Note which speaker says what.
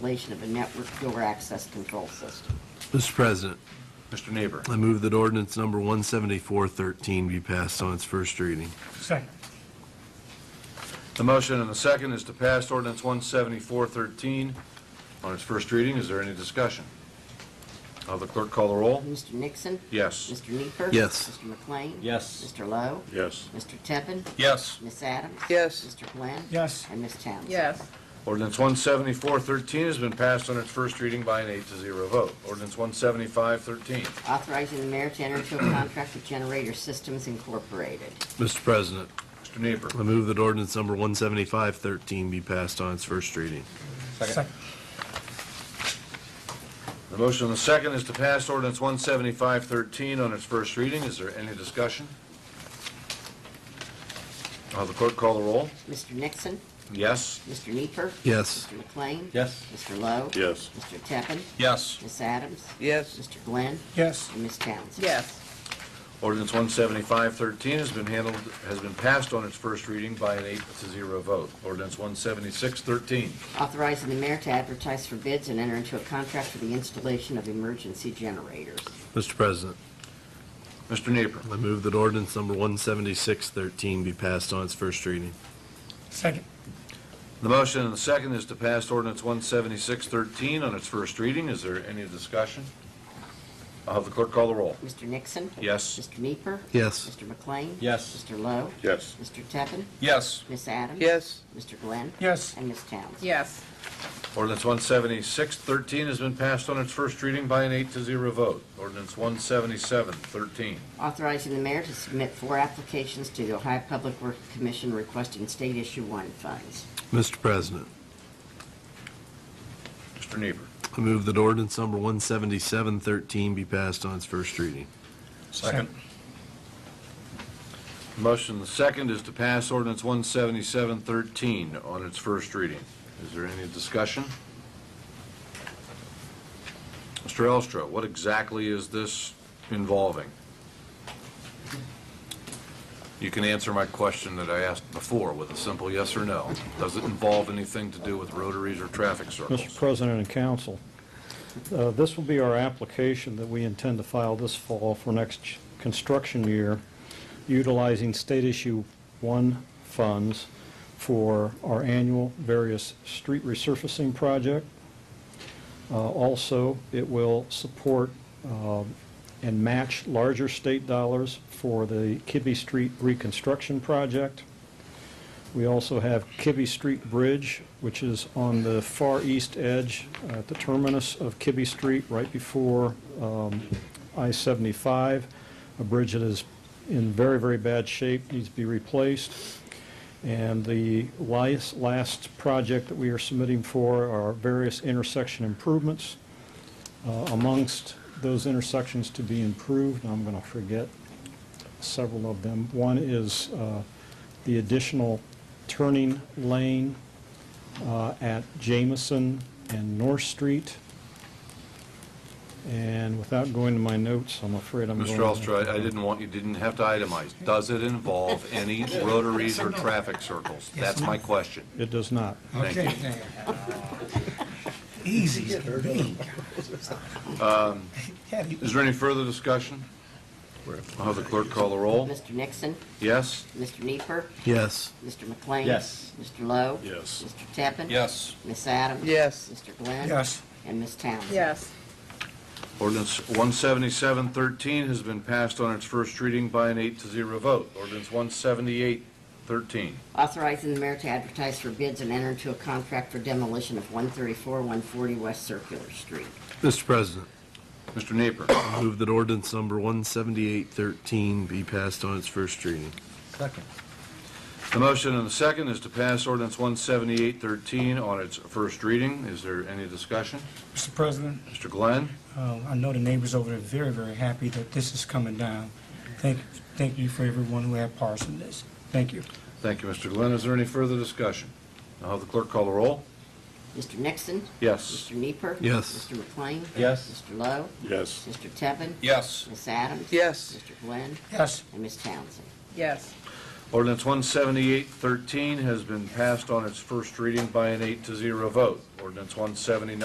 Speaker 1: installation of a network door access control system.
Speaker 2: Mr. President,
Speaker 3: Mr. Neighbor.
Speaker 2: I move that ordinance number 17413 be passed on its first reading.
Speaker 4: Second.
Speaker 3: The motion and the second is to pass ordinance 17413 on its first reading. Is there any discussion? Will the clerk call the roll?
Speaker 1: Mr. Nixon?
Speaker 3: Yes.
Speaker 1: Mr. Neifer?
Speaker 2: Yes.
Speaker 1: Mr. McLean?
Speaker 3: Yes.
Speaker 1: Mr. Lowe?
Speaker 3: Yes.
Speaker 1: Mr. Tevin?
Speaker 3: Yes.
Speaker 1: Miss Adams?
Speaker 5: Yes.
Speaker 1: Mr. Glenn?
Speaker 4: Yes.
Speaker 1: And Miss Townsend?
Speaker 5: yes,
Speaker 3: Ordinance 17413 has been passed on its first reading by an eight to zero vote. Ordinance 17513.
Speaker 1: Authorizing the mayor to enter into a contract with Generator Systems Incorporated.
Speaker 2: Mr. President,
Speaker 3: Mr. Neighbor.
Speaker 2: I move that ordinance number 17513 be passed on its first reading.
Speaker 4: Second.
Speaker 3: The motion and the second is to pass ordinance 17513 on its first reading. Is there any discussion? Will the clerk call the roll?
Speaker 1: Mr. Nixon?
Speaker 3: Yes.
Speaker 1: Mr. Neifer?
Speaker 2: Yes.
Speaker 1: Mr. McLean?
Speaker 3: Yes.
Speaker 1: Mr. Lowe?
Speaker 3: Yes.
Speaker 1: Mr. Tevin?
Speaker 3: Yes.
Speaker 1: Miss Adams?
Speaker 5: yes,
Speaker 1: Mr. Glenn?
Speaker 4: Yes.
Speaker 1: And Miss Townsend?
Speaker 5: yes,
Speaker 3: Ordinance 17513 has been handled, has been passed on its first reading by an eight to zero vote. Ordinance 17613.
Speaker 1: Authorizing the mayor to advertise for bids and enter into a contract for the installation of emergency generators.
Speaker 2: Mr. President,
Speaker 3: Mr. Neighbor.
Speaker 2: I move that ordinance number 17613 be passed on its first reading.
Speaker 4: Second.
Speaker 3: The motion and the second is to pass ordinance 17613 on its first reading. Is there any discussion? I'll have the clerk call the roll.
Speaker 1: Mr. Nixon?
Speaker 3: Yes.
Speaker 1: Mr. Neifer?
Speaker 2: Yes.
Speaker 1: Mr. McLean?
Speaker 3: Yes.
Speaker 1: Mr. Lowe?
Speaker 3: Yes.
Speaker 1: Mr. Tevin?
Speaker 3: Yes.
Speaker 1: Miss Adams?
Speaker 5: yes,
Speaker 1: Mr. Glenn?
Speaker 4: Yes.
Speaker 1: And Miss Townsend?
Speaker 5: yes,
Speaker 3: Ordinance 17613 has been passed on its first reading by an eight to zero vote. Ordinance 17713.
Speaker 1: Authorizing the mayor to submit four applications to the Ohio Public Works Commission requesting state issue one funds.
Speaker 2: Mr. President,
Speaker 3: Mr. Neighbor.
Speaker 2: I move that ordinance number 17713 be passed on its first reading.
Speaker 4: Second.
Speaker 3: Motion the second is to pass ordinance 17713 on its first reading. Is there any discussion? Mr. Elstra, what exactly is this involving? You can answer my question that I asked before with a simple yes or no. Does it involve anything to do with rotaries or traffic
Speaker 6: Mr.
Speaker 3: circles?
Speaker 6: President and Council, uh, this will be our application that we intend to file this fall for next construction year, utilizing State Issue 1 funds for our annual various street resurfacing project. Uh, Also, it will support um, and match larger state dollars for the Kibbe Street reconstruction project. We also have Kibbe Street Bridge, which is on the far east edge uh, at the terminus of Kibbe Street, right before um, I-75, a bridge that is in very, very bad shape, needs to be replaced. And the last, last project that we are submitting for are various intersection improvements. Uh, Amongst those intersections to be improved, I'm going to forget several of them. One is uh, the additional turning lane uh, at Jamison and North Street. And without going to my notes, I'm afraid I'm going
Speaker 3: Mr.
Speaker 6: to...
Speaker 3: Elstra, I I didn't want, you didn't have to itemize. Does it involve any rotaries or traffic circles? That's my question.
Speaker 6: It does not.
Speaker 3: Thank you.
Speaker 4: Okay, now. Easy as can be.
Speaker 3: Um,
Speaker 4: Have you-
Speaker 3: Is there any further discussion? I'll have the clerk call the roll.
Speaker 1: Mr. Nixon,
Speaker 3: Yes?
Speaker 1: Mr. Neifer,
Speaker 2: Yes.
Speaker 1: Mr. McLean.
Speaker 3: Yes.
Speaker 1: Mr. Lowe.
Speaker 3: Yes.
Speaker 1: Mr. Tevin.
Speaker 3: Yes.
Speaker 1: Miss Adams.
Speaker 5: Yes.
Speaker 1: Mr. Glenn.
Speaker 4: Yes.
Speaker 1: And Miss Townsend.
Speaker 5: yes,
Speaker 3: Ordinance 17713 has been passed on its first reading by an eight to zero vote. Ordinance 17813.
Speaker 1: Authorizing the mayor to advertise for bids and enter into a contract for demolition of 134, 140 West Circular Street.
Speaker 2: Mr. President,
Speaker 3: Mr. Neighbor.
Speaker 2: I move that ordinance number 17813 be passed on its first reading.
Speaker 3: The motion and the second is to pass ordinance 17813 on its first reading. Is there any discussion?
Speaker 4: Mr. President,
Speaker 3: Mr. Glenn?
Speaker 4: uh, I know the neighbors over there are very, very happy that this is coming down. Thank, thank you for everyone who had parts in this. Thank you.
Speaker 3: Thank you, Mr. Glenn. Is there any further discussion? I'll have the clerk call the roll.
Speaker 1: Mr. Nixon.
Speaker 3: Yes?
Speaker 1: Mr. Neifer.
Speaker 2: Yes.
Speaker 1: Mr. McLean.
Speaker 3: Yes.
Speaker 1: Mr. Lowe.
Speaker 3: Yes.
Speaker 1: Mr. Tevin.
Speaker 3: Yes.
Speaker 1: Miss Adams.
Speaker 5: Yes.
Speaker 1: Mr. Glenn.
Speaker 4: Yes.
Speaker 1: And Miss Townsend.
Speaker 5: yes,
Speaker 3: Ordinance 17813 has been passed on its first reading by an eight to zero vote. Ordinance 179.